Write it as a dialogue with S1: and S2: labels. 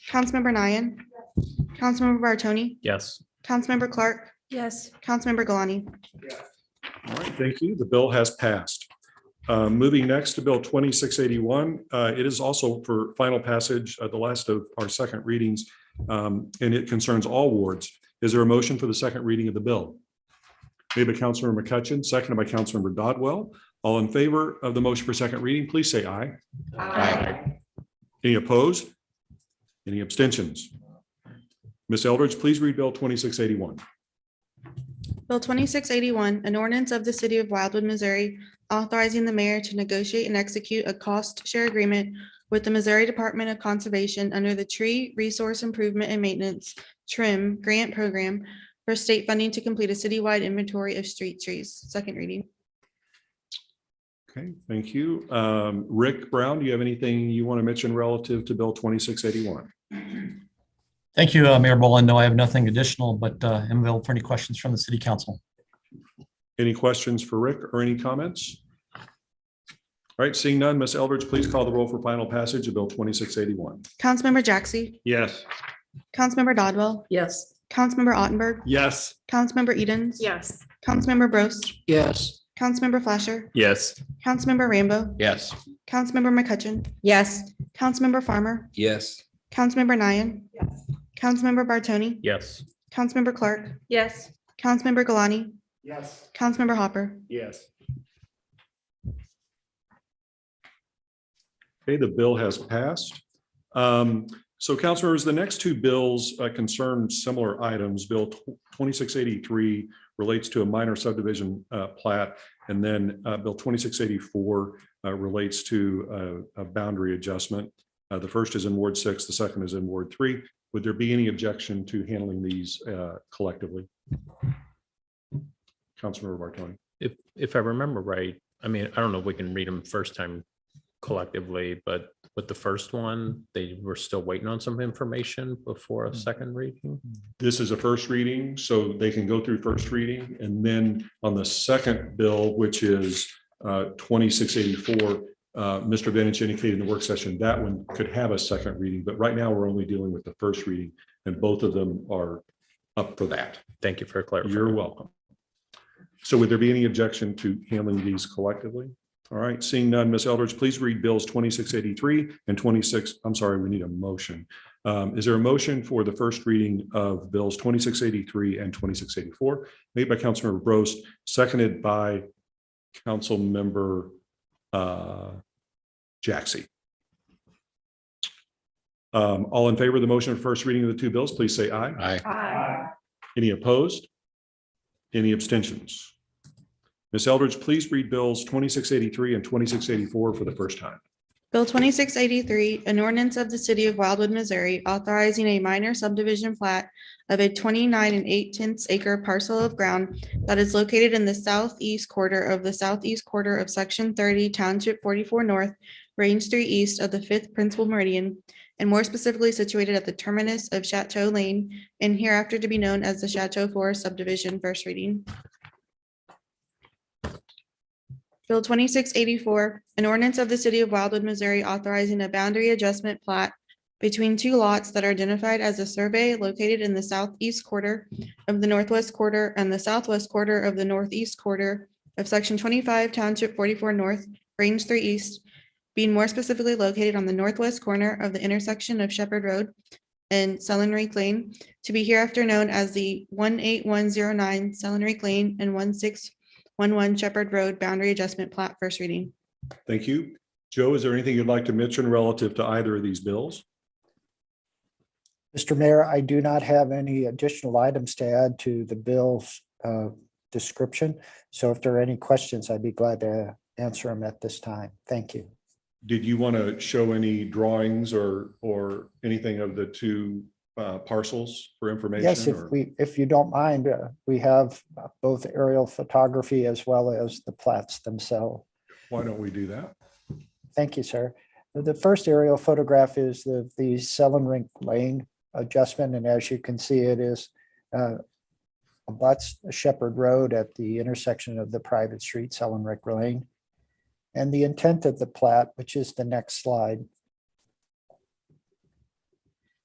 S1: Councilmember Nian. Councilmember Bartoni,
S2: Yes.
S1: Councilmember Clark,
S3: Yes.
S1: Councilmember Galani.
S4: All right, thank you. The bill has passed. Uh, Moving next to Bill 2681. uh, It is also for final passage, uh, the last of our second readings, um, and it concerns all wards. Is there a motion for the second reading of the bill? Made by Councilmember McCutcheon, seconded by Councilmember Dodwell. All in favor of the motion for second reading, please say aye. Any opposed? Any abstentions? Ms. Eldridge, please read Bill 2681.
S1: Bill twenty-six eighty-one, an ordinance of the city of Wildwood, Missouri, authorizing the mayor to negotiate and execute a cost share agreement with the Missouri Department of Conservation under the Tree Resource Improvement and Maintenance TRIM Grant Program for state funding to complete a citywide inventory of street trees. Second reading.
S4: Okay, thank you. Um, Rick Brown, do you have anything you want to mention relative to Bill 2681?
S2: Thank you, uh, Mayor Boland. No, I have nothing additional, but uh, am available for any questions from the city council.
S4: Any questions for Rick or any comments? All right, seeing none, Ms. Eldridge, please call the roll for final passage of Bill 2681.
S1: Councilmember Jaxi,
S4: Yes.
S1: Councilmember Dodwell,
S3: Yes.
S1: Councilmember Ottenberg,
S4: Yes.
S1: Councilmember Edens.
S3: Yes.
S1: Councilmember Bros,
S5: Yes.
S1: Councilmember Flasher,
S2: Yes.
S1: Councilmember Rambo,
S5: Yes.
S1: Councilmember McCutcheon,
S3: Yes.
S1: Councilmember Farmer,
S5: Yes.
S1: Councilmember Nian. Councilmember Bartoni,
S2: Yes.
S1: Councilmember Clark,
S3: Yes.
S1: Councilmember Galani,
S5: Yes.
S1: Councilmember Hopper.
S4: Yes. Okay, the bill has passed. Um, So council members, the next two bills uh, concern similar items. Bill tw- 2683 relates to a minor subdivision uh, plat, and then uh, Bill 2684 uh, relates to uh, a boundary adjustment. Uh, The first is in Ward 6, the second is in Ward 3. Would there be any objection to handling these uh, collectively? Councilmember Bartoni?
S6: If, if I remember right, I mean, I don't know if we can read them first time collectively, but with the first one, they were still waiting on some information before a second reading.
S4: This is a first reading, so they can go through first reading, and then on the second bill, which is uh, twenty-six eighty-four, Mr. Benich indicated in the work session, that one could have a second reading, but right now, we're only dealing with the first reading, and both of them are up for that.
S6: Thank you for clarifying.
S4: You're welcome. So would there be any objection to handling these collectively? All right, seeing none, Ms. Eldridge, please read bills twenty-six eighty-three and twenty-six, I'm sorry, we need a motion. Um, Is there a motion for the first reading of bills twenty-six eighty-three and twenty-six eighty-four? Made by Councilmember Bros, seconded by Councilmember uh, Jaxi. Um, All in favor of the motion of first reading of the two bills, please say aye.
S5: Aye.
S4: Any opposed? Any abstentions? Ms. Eldridge, please read bills 2683 and 2684 for the first time.
S1: Bill twenty-six eighty-three, an ordinance of the city of Wildwood, Missouri, authorizing a minor subdivision plat of a twenty-nine and eight-tenths acre parcel of ground that is located in the southeast quarter of the southeast quarter of section thirty township forty-four north, range three east of the fifth principal meridian, and more specifically situated at the terminus of Chateau Lane and hereafter to be known as the Chateau Forest subdivision, first reading. Bill twenty-six eighty-four, an ordinance of the city of Wildwood, Missouri authorizing a boundary adjustment plat between two lots that are identified as a survey located in the southeast quarter of the northwest quarter and the southwest quarter of the northeast quarter of section twenty-five township forty-four north, range three east, being more specifically located on the northwest corner of the intersection of Shepherd Road and Sellenrick Lane, to be hereafter known as the one eight one zero nine Sellenrick Lane and one six one one Shepherd Road Boundary Adjustment Plat, first reading.
S4: Thank you. Joe, is there anything you'd like to mention relative to either of these bills?
S7: Mr. Mayor, I do not have any additional items to add to the bill's uh, description. So if there are any questions, I'd be glad to answer them at this time. Thank you.
S4: Did you want to show any drawings or, or anything of the two uh, parcels for information?
S7: Yes, if
S4: or-
S7: we, if you don't mind, uh, we have uh, both aerial photography as well as the plats themselves.
S4: Why don't we do that?
S7: Thank you, sir. The first aerial photograph is the, the Sellenrink Lane adjustment, and as you can see, it is uh, abuts Shepherd Road at the intersection of the private street, Sellenrink Lane. And the intent of the plat, which is the next slide,